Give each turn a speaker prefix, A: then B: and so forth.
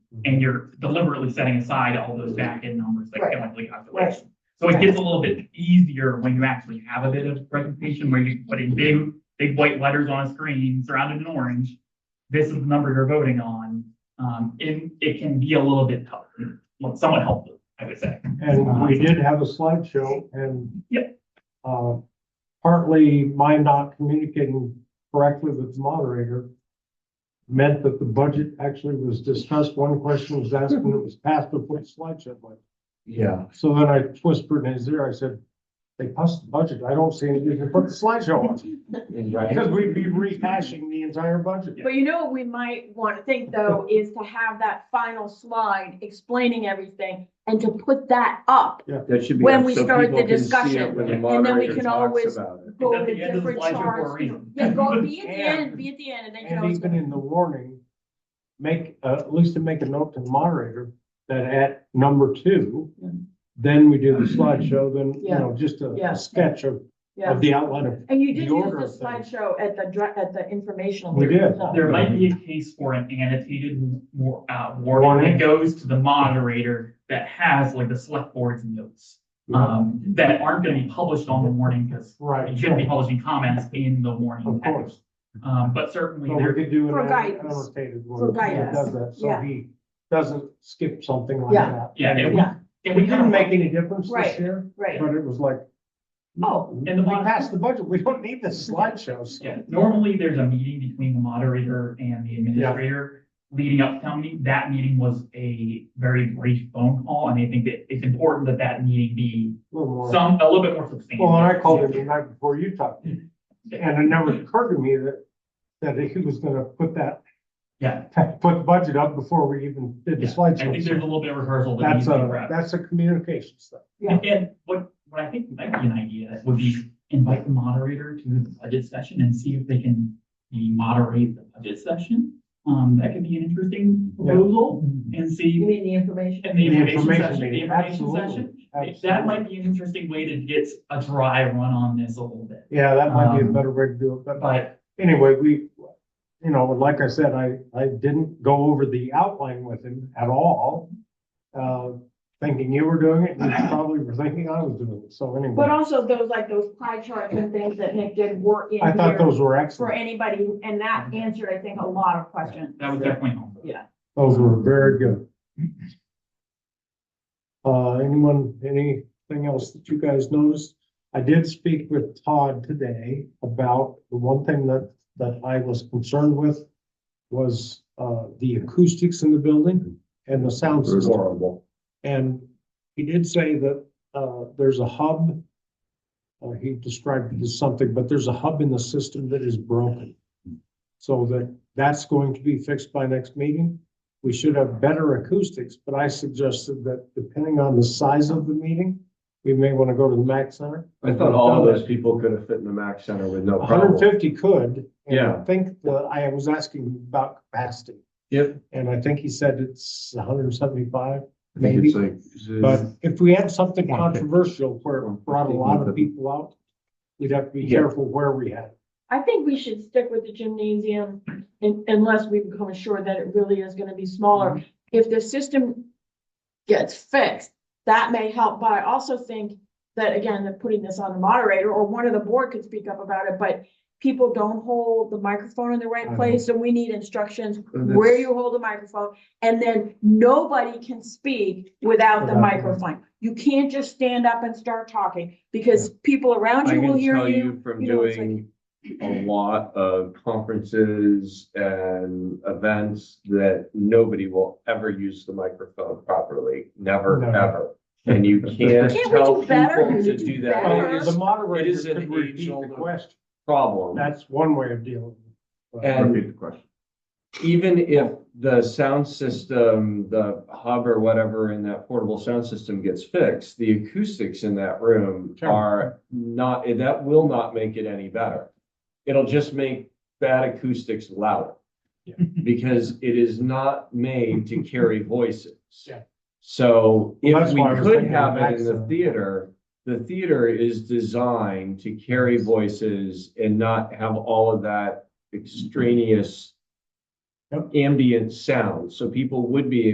A: and you're deliberately setting aside all those back-end numbers like
B: Right.
A: chemical calculations. So it gets a little bit easier when you actually have a bit of presentation where you put in big, big white letters on a screen surrounded in orange. This is the number you're voting on. Um, and it can be a little bit tough, well, somewhat helpful, I would say.
C: And we did have a slideshow and.
A: Yep.
C: Uh, partly my not communicating correctly with the moderator meant that the budget actually was discussed, one question was asked and it was passed before the slideshow went.
D: Yeah.
C: So then I whispered in his ear, I said, they passed the budget, I don't see anything to put the slideshow on. Because we'd be rehashing the entire budget.
B: But you know what we might want to think though, is to have that final slide explaining everything and to put that up.
D: That should be.
B: When
D: up
B: we
D: so
B: start
D: people
B: the
D: can see
B: discussion,
D: it when the
A: and
B: then we
D: moderator
B: can
D: talks
B: always-
D: about it.
B: Go
A: It's at
B: to
A: the end of the
B: different
A: slideshow for a
B: charts. you know.
A: reason.
B: Yeah, go be at the end, be at the end and then you know.
C: And
B: it's
C: even in the warning, make, uh, at least to make a note to the moderator that at number two, then we do the slideshow, then, you know, just a-
B: Yeah.
C: a sketch of,
B: Yeah.
C: of the outline of.
B: And you did
C: the
B: use
C: order of
B: the
C: things.
B: slideshow at the, dr- at the informational.
C: We
B: meeting,
C: did.
B: so.
A: There might be a case for an annotated war- uh, warning
C: Warning.
A: that goes to the moderator that has like the select board's notes. Um, that aren't gonna be published on the warning because
C: Right.
A: you shouldn't be publishing comments in the warning.
C: Of course.
A: Um, but certainly
C: But we
A: there,
C: could do
B: For
C: an
B: guidance.
C: annotated
B: For
C: one that
B: guidance.
C: does that, so
B: Yeah.
C: he doesn't skip something like
B: Yeah.
C: that.
A: Yeah, it-
B: Yeah,
A: and
C: We
A: we kind
C: didn't
A: of
C: make
A: make,
C: any difference
B: Right.
C: this year,
B: right.
C: but it was like,
B: Oh,
C: we
A: and the mod-
C: passed the budget, we don't need the slideshows.
A: yeah, normally there's a meeting between the moderator and the administrator leading up to town meeting. That meeting was a very brief phone call, and I think that it's important that that meeting be
C: A little more.
A: some, a little bit more substantial.
C: Well, and I called him the night before you talked, and
A: Yeah.
C: it never occurred to me that, that he was gonna put that,
A: Yeah,
C: put the budget up before we even did the
A: Yeah, I think there's a
C: slideshow.
A: little bit of rehearsal that needs
C: That's
A: to be
C: a,
A: wrapped.
C: that's a communication stuff.
A: And and what, what I think might be an idea would be invite the moderator to the budget session and see if they can maybe moderate the budget session. Um, that could be an interesting proposal and
B: you
A: see,
B: mean the information?
A: and the
C: The
A: information
C: information
A: session, the
C: meeting,
A: information
C: absolutely,
A: session. That might be an interesting way to get a dry run on this a little bit,
C: Yeah, that might be a
A: Um,
C: better way to do it, but
A: but
C: anyway, we, you know, like I said, I, I didn't go over the outline with him at all. Uh, thinking you were doing it, and you probably were thinking I was doing it, so
B: But
C: anyway,
B: also those, like those pie charts and things that Nick did were in
C: I thought
B: here
C: those Mm-hmm. were
B: for
C: excellent,
B: anybody, and that answered, I think, a lot of questions.
A: that was definitely helpful.
C: those were very good. Uh, anyone, anything else that you guys noticed? I did speak with Todd today about the one thing that, that I was concerned with was, uh, the acoustics in the building and the sound
D: It was
C: system.
D: horrible.
C: And he did say that, uh, there's a hub. uh, he described it as something, but there's a hub in the system that is broken. So that, that's going to be fixed by next meeting. We should have better acoustics, but I suggested that depending on the size of the meeting, we may want to go to the Mac Center.
D: I thought all of those people could have fit in the Mac Center with no
C: hundred and
D: problem.
C: fifty could. and
D: Yeah.
C: I think that I was asking about capacity.
D: Yep.
C: And I think he said it's hundred and seventy-five,
D: I think
C: maybe.
D: it's like.
C: But if we had something
D: One fifty.
C: controversial where it brought a lot of
D: 150.
C: people out, we'd have to be
D: Yeah.
C: careful where we had. it.
B: I think we should stick with the gymnasium un- unless we become sure that it really is gonna be smaller. If the system gets fixed, that may help, but I also think that, again, that putting this on the moderator or one of the board could speak up about it, but people don't hold the microphone in the
C: I
B: right
C: know.
B: place, and we need instructions
D: And
B: where
D: that's-
B: you hold the microphone, and then nobody can speak without the
C: Without the
B: microphone. You can't just stand up and start talking, because people around
D: I
B: you will
D: can
B: hear
D: tell you
B: you.
D: from
B: you know, it's like-
D: doing a lot of conferences and events that nobody will ever use the microphone properly, never,
C: No.
D: ever. And you can't
B: Can't we
D: tell
B: do better?
D: people to
B: We
D: do
B: do
D: that. It
B: better.
D: is
C: The
D: a it
C: moderator
D: is an
C: could repeat
D: age-old-
C: the question.
D: problem.
C: That's one way of dealing. with it.
D: And- even if the sound system, the hub or whatever in that portable sound system gets fixed, the acoustics in that room
C: Sure.
D: are not, that will not make it any better. It'll just make bad acoustics louder.
C: Yeah.
D: Because it is not made to carry voices.
C: Yeah.
D: So
C: Well,
D: if
C: that's
D: we
C: why I was
D: could
C: thinking
D: have it in the
C: maximum.
D: theater, the theater is designed to carry voices and not have all of that extraneous
C: Yep.
D: ambient sound, so people would be